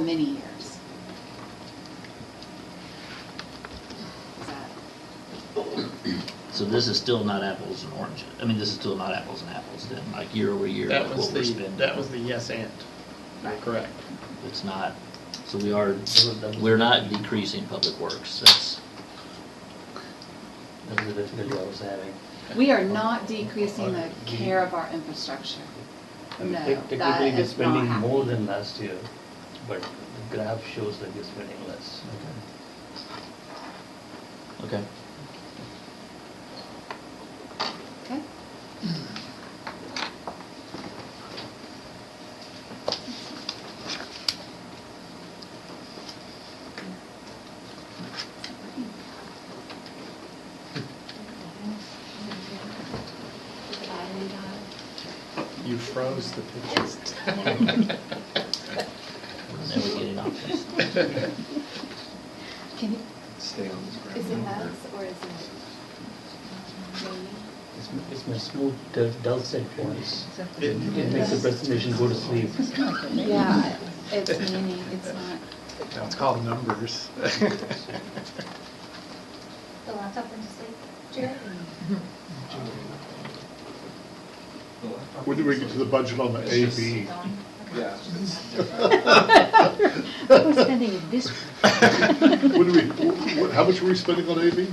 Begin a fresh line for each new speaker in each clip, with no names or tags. many years. Is that-
So this is still not apples and oranges. I mean, this is still not apples and apples then, like year over year,
That
like
was
what we're
the,
spending.
that was the yes and. You're
Right.
correct.
It's not, so we are, we're not decreasing public works. That's,
That was the difficulty I was having.
We are not decreasing the care of our infrastructure.
I mean,
No,
tec-
that
Technically, we're
has not
spending
happened.
more than last year, but the graph shows that we're spending less.
okay.
Okay?
You froze the pictures.
We're never getting off this.
Can you,
Stay on this ground.
Is it us or is it me?
It's m- It's my smooth, dul- dulcet voice.
It-
It makes the presentation go to sleep.
yeah, it's many, it's not,
No, It's called numbers.
The laptop went to sleep, Jared?
When do we get to the budget on the AB?
Yeah.
we're spending this.
When do we, wh- wh- how much were we spending on AB?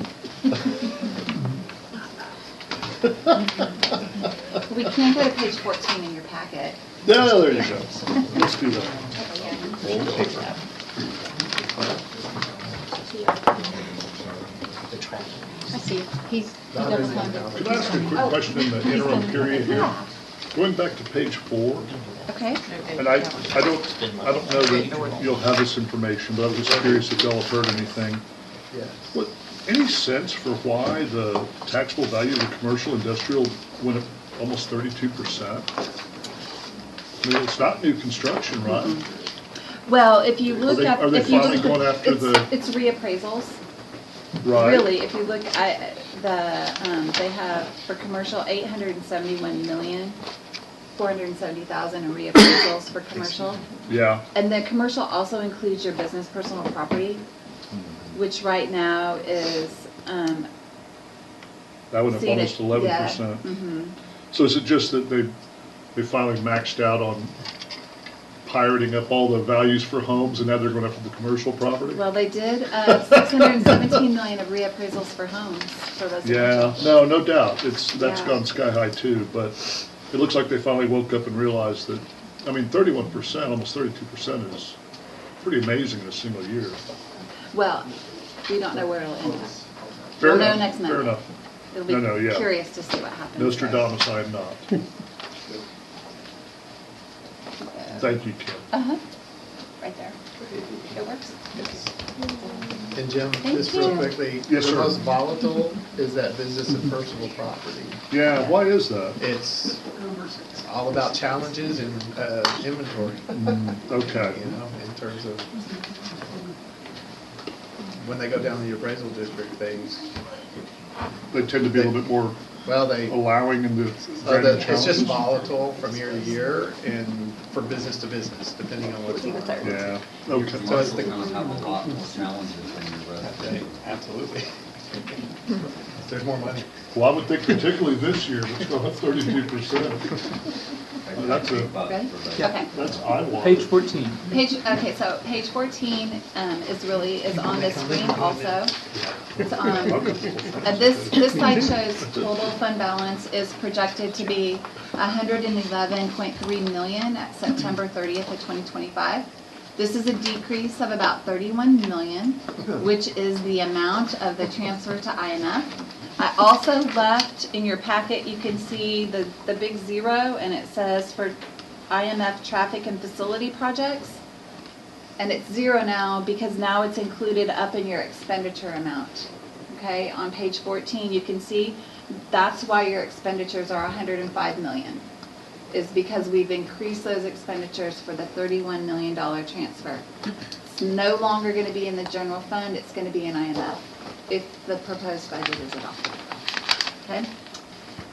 We can go to page fourteen in your packet.
Yeah, there you go. Let's do that.
Old paper.
I see, he's, he double-minded.
Can I ask a quick question in the interim period here? Going back to page four,
Okay,
and I, I don't, I don't know that you'll have this information, but I was just curious if y'all have heard anything.
Yes.
What, any sense for why the taxable value of the commercial industrial went up almost thirty-two percent? I mean, it's not new construction, right?
well, if you look
they-
up,
are they
if you
finally
look,
going after
it's, it's reappraisals.
Right.
Really, if you look at the, um, they have for commercial, eight hundred and seventy-one million, four hundred and seventy thousand in reappraisals for commercial.
Yeah.
And the commercial also includes your business personal property,
Hmm.
which right now is, um.
That went up
seen
almost
at-
eleven
yeah,
percent.
mhm.
So is it just that they, they finally maxed out on pirating up all the values for homes and now they're going after the commercial property?
Well, they did, uh, six hundred and seventeen million of reappraisals for homes, for residential.
Yeah, no, no doubt. It's, that's
Yeah.
gone sky high too, but it looks like they finally woke up and realized that, I mean, thirty-one percent, almost thirty-two percent is pretty amazing in a single year.
Well, we don't know where it'll end up.
Fair
We'll know
enough,
next
Fair
month.
enough.
It'll
No, no,
be
yeah.
curious to see what happens.
Nostradamus, I am not. Thank you, Kim.
Uh-huh, right there. It works.
And Jim,
Thank
just real
you.
quickly, the
Yes, sir.
most volatile is that business and personal property.
Yeah, why is that?
It's, it's all about challenges and uh, inventory,
Okay.
you know, in terms of when they go down the appraisal district, they,
They tend to be a little bit more
well, they,
allowing in the
uh,
granting
the-
challenges.
it's just volatile from year to year and for business to business, depending on what's going on.
Yeah, okay.
So it's the-
You're gonna have a lot more challenges than your
Okay,
residential.
Absolutely. There's more money.
Well, I would think particularly this year, it's gone up thirty-two percent. That's a-
Ready?
For
Okay.
That's eye-watering.
Page fourteen.
Page, okay, so page 14 um, is really, is on the screen also. It's on, and Uh, this, this slide shows total fund balance is projected to be 111.3 million at September 30th of 2025. This is a decrease of about 31 million, which is the amount of the transfer to IMF. I also left in your packet, you can see the, the big zero, and it says for IMF traffic and facility projects. And it's zero now because now it's included up in your expenditure amount. Okay, on page 14, you can see that's why your expenditures are 105 million. Is because we've increased those expenditures for the $31 million transfer. It's no longer going to be in the general fund, it's going to be in IMF if the proposed budget is adopted. Okay?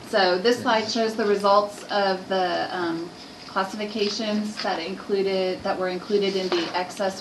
So this slide shows the results of the um, classifications that included, that were included in the excess